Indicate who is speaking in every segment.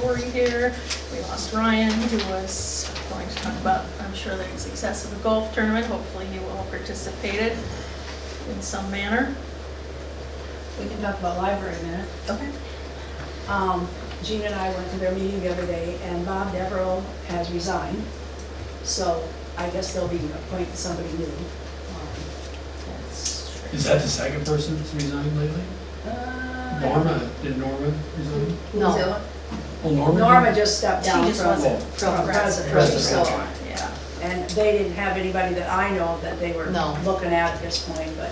Speaker 1: Lori here. We lost Ryan, who was going to talk about, I'm sure, the success of the golf tournament. Hopefully he will have participated in some manner.
Speaker 2: We can talk about library in a minute.
Speaker 1: Okay.
Speaker 2: Um, Gina and I went to their meeting the other day, and Bob Deverell has resigned. So I guess they'll be appointing somebody new. Um, that's-
Speaker 3: Is that the second person that's resigned lately?
Speaker 2: Uh,
Speaker 3: Norma, did Norma resign?
Speaker 2: No,
Speaker 3: Oh, Norma? did?
Speaker 2: Norma just stepped
Speaker 1: She
Speaker 2: down
Speaker 1: just
Speaker 2: from,
Speaker 3: wasn't
Speaker 2: from president,
Speaker 3: president.
Speaker 2: so.
Speaker 1: Yeah.
Speaker 2: And they didn't have anybody that I know that they were
Speaker 4: No.
Speaker 2: looking at at this point, but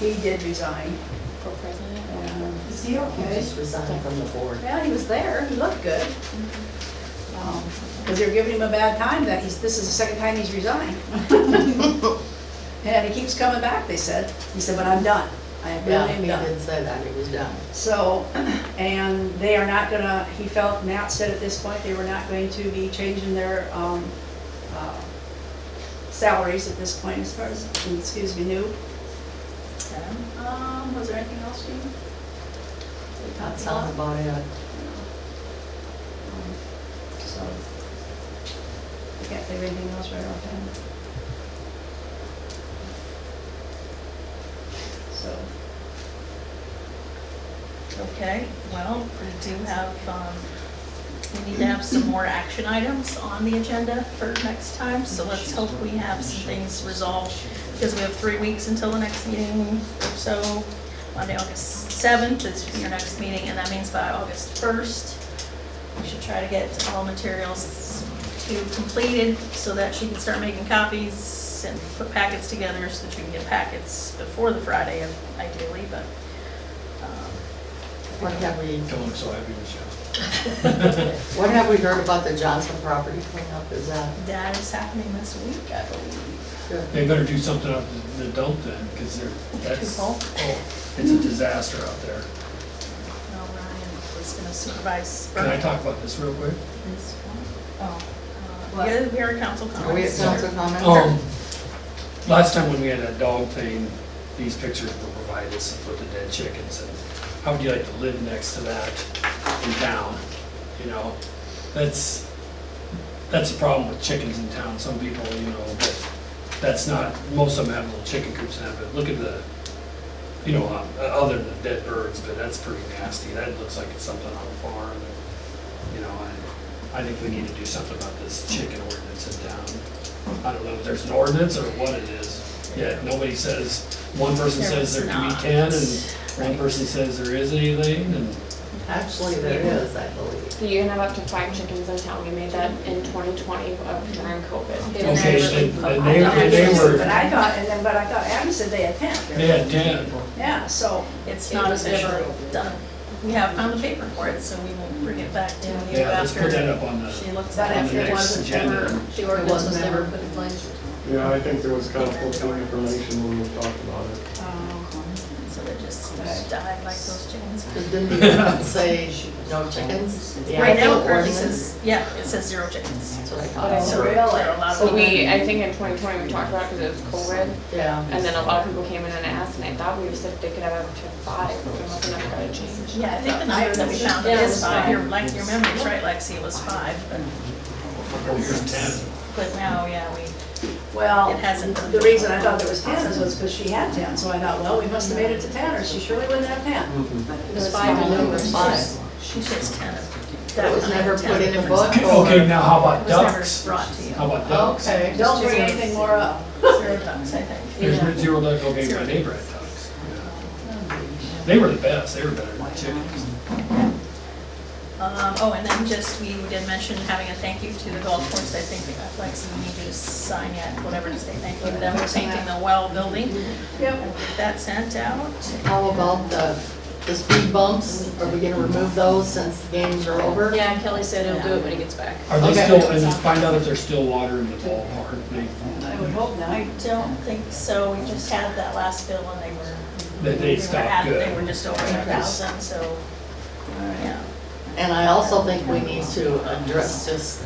Speaker 2: he did resign.
Speaker 4: For president?
Speaker 2: Um,
Speaker 5: Is he
Speaker 4: He
Speaker 5: okay?
Speaker 4: just resigned from the board.
Speaker 2: Yeah, he was there, he looked good. Because they're giving him a bad time, that he's, this is the second time he's resigned. And he keeps coming back, they said. He said, but I'm done. I am
Speaker 4: Yeah,
Speaker 2: really am
Speaker 4: he
Speaker 2: done.
Speaker 4: did say that, he was done.
Speaker 2: So, and they are not gonna, he felt, Matt said at this point, they were not going to be changing their um, uh, salaries at this point as far as, excuse me, new. Um, Was there anything else, Jean?
Speaker 4: That sounds about it.
Speaker 2: Um, So, I can't think of anything else right offhand. So,
Speaker 1: Okay, well, we do have, um, we need to have some more action items on the agenda for next time, so let's hope we have some things resolved, because we have three weeks until the next meeting, so Monday, August 7th is your next meeting, and that means by August 1st, we should try to get all materials to completed, so that she can start making copies and put packets together, so that you can get packets before the Friday of- ideally, but, um,
Speaker 4: What have we,
Speaker 3: Don't look so happy, Michelle.
Speaker 4: what have we heard about the Johnson property cleanup? Is that
Speaker 1: That is happening this week, I believe.
Speaker 4: good?
Speaker 3: They better do something up in the dump then, because they're, that's,
Speaker 1: full?
Speaker 3: oh, it's a disaster out there.
Speaker 1: No, Ryan was gonna supervise.
Speaker 3: Can I talk about this real quick?
Speaker 1: this one.
Speaker 2: oh,
Speaker 1: Uh,
Speaker 2: What?
Speaker 1: Yeah, we are council
Speaker 4: Are we at
Speaker 1: comments.
Speaker 4: council comments? or-
Speaker 3: Um, last time when we had that dog thing, these pictures were provided, us with the dead chickens, and how would you like to live next to that in town? You know, that's, that's the problem with chickens in town, some people, you know, but that's not, most of them have little chicken coops now, but look at the, you know, uh, other than dead birds, but that's pretty nasty, that looks like it's something on a farm, you know, I, I think we need to do something about this chicken ordinance in town. I don't know if there's an ordinance or what it is, yet nobody says, one person
Speaker 1: There
Speaker 3: says there can be
Speaker 1: is
Speaker 3: ten,
Speaker 1: not.
Speaker 3: and one person says there is anything, and
Speaker 4: Actually, there is, I believe.
Speaker 6: You can have up to five chickens in town. We made that in 2020 of during COVID. They
Speaker 1: Okay,
Speaker 6: never
Speaker 3: then-
Speaker 6: put
Speaker 3: then
Speaker 6: on
Speaker 3: they-
Speaker 6: that.
Speaker 3: they- they were-
Speaker 2: But I thought, and then, but I thought, Adam said they had ten.
Speaker 3: they had ten.
Speaker 2: Yeah, so,
Speaker 1: It's not
Speaker 4: It was
Speaker 1: officially
Speaker 4: never-
Speaker 1: done. We have found the paper for it, so we will bring it back to you after.
Speaker 3: Yeah, let's put that up on the,
Speaker 1: She looks
Speaker 2: that
Speaker 1: at
Speaker 3: On the
Speaker 2: after it
Speaker 3: next
Speaker 2: wasn't
Speaker 3: agenda.
Speaker 2: ever, the
Speaker 4: It
Speaker 2: ordinance was
Speaker 4: wasn't
Speaker 2: never
Speaker 4: ever-
Speaker 2: put in place.
Speaker 7: Yeah, I think there was conflicting information when we talked about it.
Speaker 2: Um,
Speaker 1: it, so they just died like those chickens.
Speaker 4: 'Cause Didn't the ordinance say she- no chickens? The
Speaker 1: Right now,
Speaker 4: actual
Speaker 1: it currently
Speaker 4: ordinance?
Speaker 1: says, yeah, it says zero chickens.
Speaker 4: That's what I
Speaker 2: Oh,
Speaker 4: thought.
Speaker 2: really?
Speaker 1: There are a lot of
Speaker 6: So
Speaker 1: them.
Speaker 6: we, I think in 2020, we talked about it because it was COVID.
Speaker 4: Yeah.
Speaker 6: And then a lot of people came in and asked, and I thought we said they could have up to five, but we must have never got a change.
Speaker 1: Yeah, I think the number that we found
Speaker 6: Yeah, it
Speaker 1: is
Speaker 6: was
Speaker 1: five.
Speaker 6: five.
Speaker 1: Your, like, your memory's right, Lexi, it was five, but,
Speaker 3: here's ten.
Speaker 1: but now, yeah, we,
Speaker 2: Well,
Speaker 1: It hasn't been.
Speaker 2: the reason I thought there was ten is was because she had ten, so I thought, well, we must have made it to ten, or she surely wouldn't have ten.
Speaker 4: It was five and number five.
Speaker 1: she says ten.
Speaker 4: That was never put in a book or?
Speaker 3: Okay, now how
Speaker 1: It
Speaker 3: about
Speaker 1: was never
Speaker 3: ducks?
Speaker 1: brought to you.
Speaker 3: How about ducks?
Speaker 4: Okay.
Speaker 2: Don't bring anything more up.
Speaker 1: Zero ducks, I think.
Speaker 3: There's zero duck, okay, my neighbor had ducks. They were the best, they were better than chickens.
Speaker 1: Um, oh, and then just, we did mention having a thank you to the golf course, I think, I'd like some, you need to sign yet, whatever to say thank you to them for painting the well building.
Speaker 2: Yep.
Speaker 1: We'll get that sent out.
Speaker 4: How about the, the speed bumps? Are we gonna remove those since the games are over?
Speaker 5: Yeah, Kelly said he'll do it when he gets back.
Speaker 3: Are they
Speaker 4: Okay.
Speaker 3: still, and find out if there's still water in the ballpark, they,
Speaker 2: I would hope not.
Speaker 1: I don't think so, we just had that last bill and they were.
Speaker 3: that they
Speaker 1: were
Speaker 3: stopped
Speaker 1: at-
Speaker 3: good.
Speaker 1: They were just over a thousand, so, yeah.
Speaker 4: And I also think we need to address this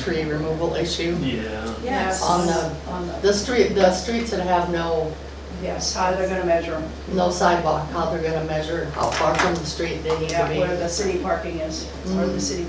Speaker 4: tree removal issue.
Speaker 3: Yeah.
Speaker 1: Yes.
Speaker 4: On the-
Speaker 2: On the,
Speaker 4: The street, the streets that have no,
Speaker 2: yes, how they're gonna measure them,
Speaker 4: no sidewalk, how they're gonna measure how far from the street they need
Speaker 2: yeah, where
Speaker 4: to
Speaker 2: the city parking is, or the
Speaker 4: Mhm.
Speaker 2: city